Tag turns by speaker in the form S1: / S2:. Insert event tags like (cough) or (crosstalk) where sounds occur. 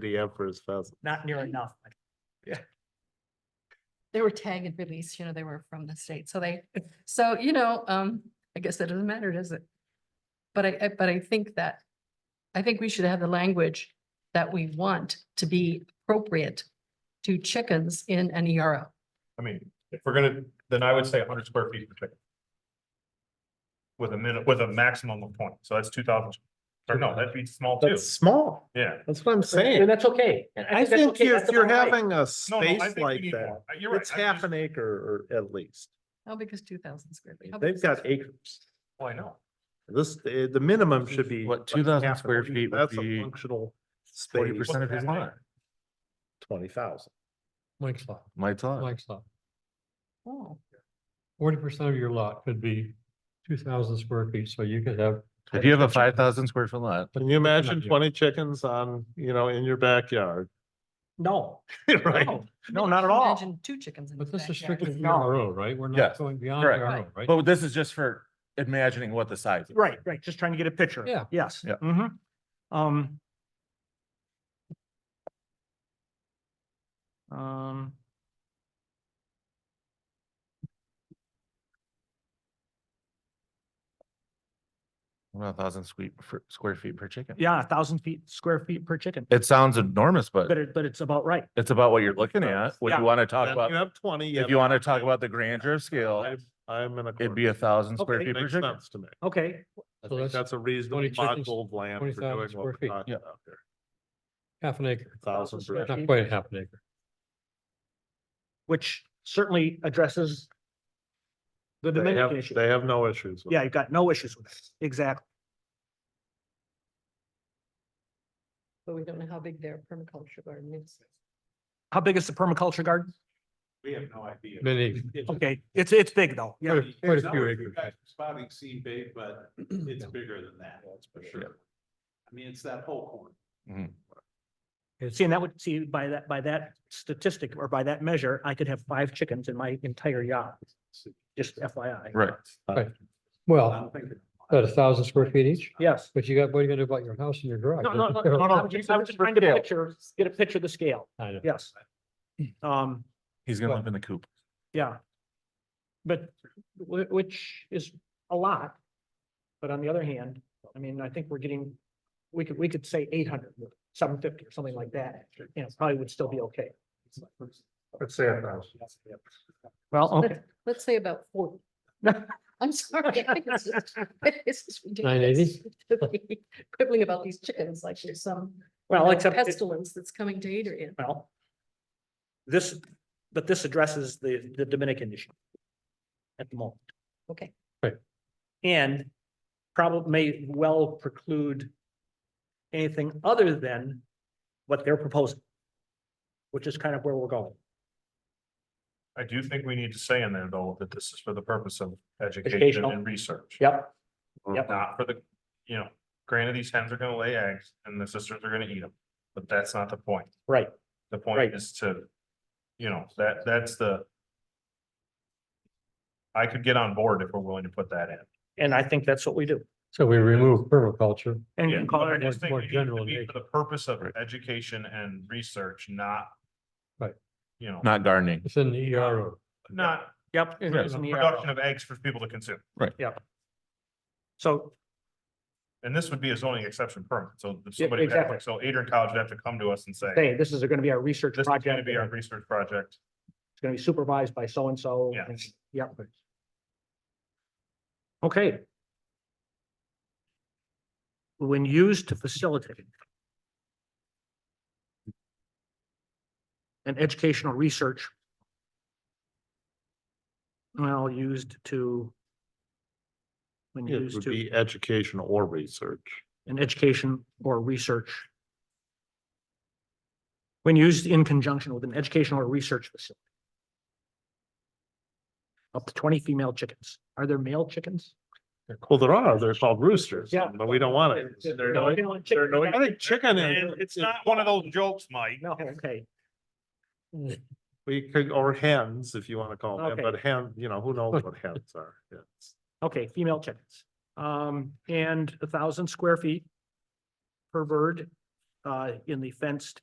S1: the Emperor's Pheasant.
S2: not near enough.
S3: They were tag and release, you know, they were from the state, so they, so, you know, um, I guess that doesn't matter, does it? But I, I- but I think that, I think we should have the language that we want to be appropriate to chickens in an E ERO.
S4: I mean, if we're gonna, then I would say hundred square feet per chicken. With a minute, with a maximum of twenty, so that's two thousand, or no, that'd be small too,
S1: That's small.
S4: yeah.
S1: That's what I'm
S2: And
S1: saying.
S2: that's okay. And
S1: I
S2: that's
S1: think
S2: okay.
S1: if
S2: That's
S1: you're
S2: about right.
S1: having a
S4: No, no, I
S1: space
S4: think we
S1: like
S4: need
S1: that,
S4: more. Uh, You're right.
S1: it's
S4: I'm
S1: half
S4: just-
S1: an acre or at least.
S3: How big is two thousand square feet? How big
S1: They've
S3: is
S1: got
S3: this?
S1: acres.
S4: Well, oh, I know,
S1: This, eh, the minimum should be.
S5: What,
S1: like
S5: 2,000
S1: half an
S5: square
S1: acre.
S5: feet would
S1: That's a
S5: be
S1: Functional
S5: Forty
S1: space,
S5: percent of his
S4: What's
S5: lot,
S4: happening?
S1: twenty thousand.
S6: Mike's lot,
S5: Mike's lot.
S6: Mike's lot.
S3: Oh,
S6: Forty percent of your lot could be two thousand square feet, so you could have.
S5: If you have a five thousand square foot lot,
S1: Can you imagine
S6: you.
S1: twenty chickens on, you know, in your backyard? (laughs)
S2: No,
S1: Right? (laughs)
S2: no,
S4: no, not at all,
S3: Imagine two chickens in the
S6: But this is
S3: backyard.
S6: strictly
S2: It's not.
S6: RO, right? We're not
S5: Yes,
S6: going beyond
S5: correct.
S6: RO, right?
S5: but this is just for imagining what the size. is.
S2: right, right, just trying to get a picture.
S6: Yeah.
S2: Yes.
S5: Yeah.
S2: hmm Um. Um.
S5: About a thousand square, square feet per chicken.
S2: Yeah, a thousand feet, square feet per chicken,
S5: It sounds enormous,
S2: but
S5: but
S2: it, but it's about right.
S5: it's about what you're looking at, what
S2: Yeah.
S5: you want to talk
S1: Then You
S5: about.
S1: have twenty.
S5: If you want to talk about the grandeur of scale,
S1: I'm I'm in a.
S5: it'd be a thousand square
S2: Okay.
S5: feet per
S1: Makes
S5: chicken.
S1: sense to me.
S2: Okay,
S1: I
S6: So
S1: think
S6: that's
S1: that's a reasonable
S6: 20 chickens,
S1: module of land for
S6: 20,000
S1: doing what
S6: square
S1: we're
S6: feet.
S1: talking
S5: Yeah.
S1: about here.
S6: half an acre,
S1: Thousand.
S2: square
S1: per-
S2: feet.
S6: not quite half an acre.
S2: which certainly addresses the
S1: They have,
S2: Dominican issue.
S1: they have no issues. with
S2: Yeah,
S1: it.
S2: you've got no issues with it. Exactly.
S3: But we don't know how big their permaculture garden is.
S2: How big is the permaculture garden?
S7: We have no idea.
S6: Many,
S7: It's-
S2: Okay, it's, it's big though. Yeah.
S6: quite a- quite
S7: There's
S6: a few
S7: numbers, you
S6: acres.
S7: guys are Spotting seed bait,
S1: (clears throat)
S7: but it's
S6: Yeah.
S7: bigger than that, that's for
S5: Yeah.
S7: sure. I mean, it's that whole corner.
S2: See, and that would, see, by that, by that statistic or by that measure, I could have five chickens in my entire yard. Just FYI.
S5: Right.
S7: I
S6: well,
S7: don't think.
S6: at a thousand square feet each,
S2: Yes.
S6: but you got, what are you gonna do about your house and your garage?
S2: No, no, no, no, no. I'm just I'm just trying to picture, get a picture of the scale.
S6: I know.
S2: Yes. Um,
S5: He's gonna
S6: But-
S5: live in the coop.
S2: yeah. But wh- which is a lot. But on the other hand, I mean, I think we're getting, we could, we could say 800, 750 or something like that. You know, probably would still be okay.
S1: Let's say a thousand.
S2: (laughs) Well,
S3: Let's- Let's say about forty. I'm (laughs) sorry. This is
S6: Nine eighty?
S3: ridiculous. (laughs) Quibbling about these chickens like there's some
S2: Well,
S3: know,
S2: except. it-
S3: Pestilence that's coming to Adrian.
S2: Well. This, but this addresses the, the Dominican issue. At the moment.
S3: Okay.
S6: Right.
S2: And probably may well preclude. Anything other than what they're proposing. Which is kind of where we're going.
S4: I do think we need to say in there though, that this is for the purpose of education
S2: Educational.
S4: and research.
S2: Yep. Yep.
S4: Not for the, you know, granted, these hens are gonna lay eggs and the sisters are gonna eat them, but that's not the point.
S2: Right.
S4: The
S2: Right.
S4: point is to, you know, that, that's the. I could get on board if we're willing to put that in.
S2: And I think that's what we do.
S6: So we remove permaculture.
S2: And
S4: Yeah,
S2: you call
S4: but I
S2: it,
S4: just think we
S6: more- more
S4: need it
S6: general
S4: to
S6: in
S4: be
S6: nature.
S4: For the purpose of
S5: Right.
S4: education and research, not.
S6: Right.
S4: You know,
S5: Not gardening.
S6: It's in the E ERO.
S4: not
S2: yep.
S6: Yeah.
S2: it's uh, in the arrow.
S4: production of eggs for people to consume.
S2: So,
S4: And this would be a zoning exception permit, so if
S2: Yeah,
S4: somebody, would have-
S2: exactly.
S4: so Adrian College would have to come to us and say,
S2: hey, this is gonna be our research
S4: this is
S2: project.
S4: gonna be our
S2: and
S4: research project.
S2: It's gonna be supervised by so-and-so.
S4: Yeah.
S2: and- Yep. Okay. When used to facilitate an educational research well, used to when
S1: It
S2: used
S1: would
S2: to
S1: be education or research.
S2: an education or research when used in conjunction with an educational or research facility. Up to twenty female chickens. Are there male chickens?
S1: Well, there are, they're called roosters.
S2: Yeah.
S1: But we don't want it. They're no- they're no- I think chicken is.
S4: It's not one of those jokes, Mike.
S2: No, okay,
S1: We could, or hens, if you want to call them,
S2: Okay.
S1: but hen, you know, who (laughs) knows what hens are. Yes.
S2: okay, female chickens. Um, and a thousand square feet per bird, uh, in the fenced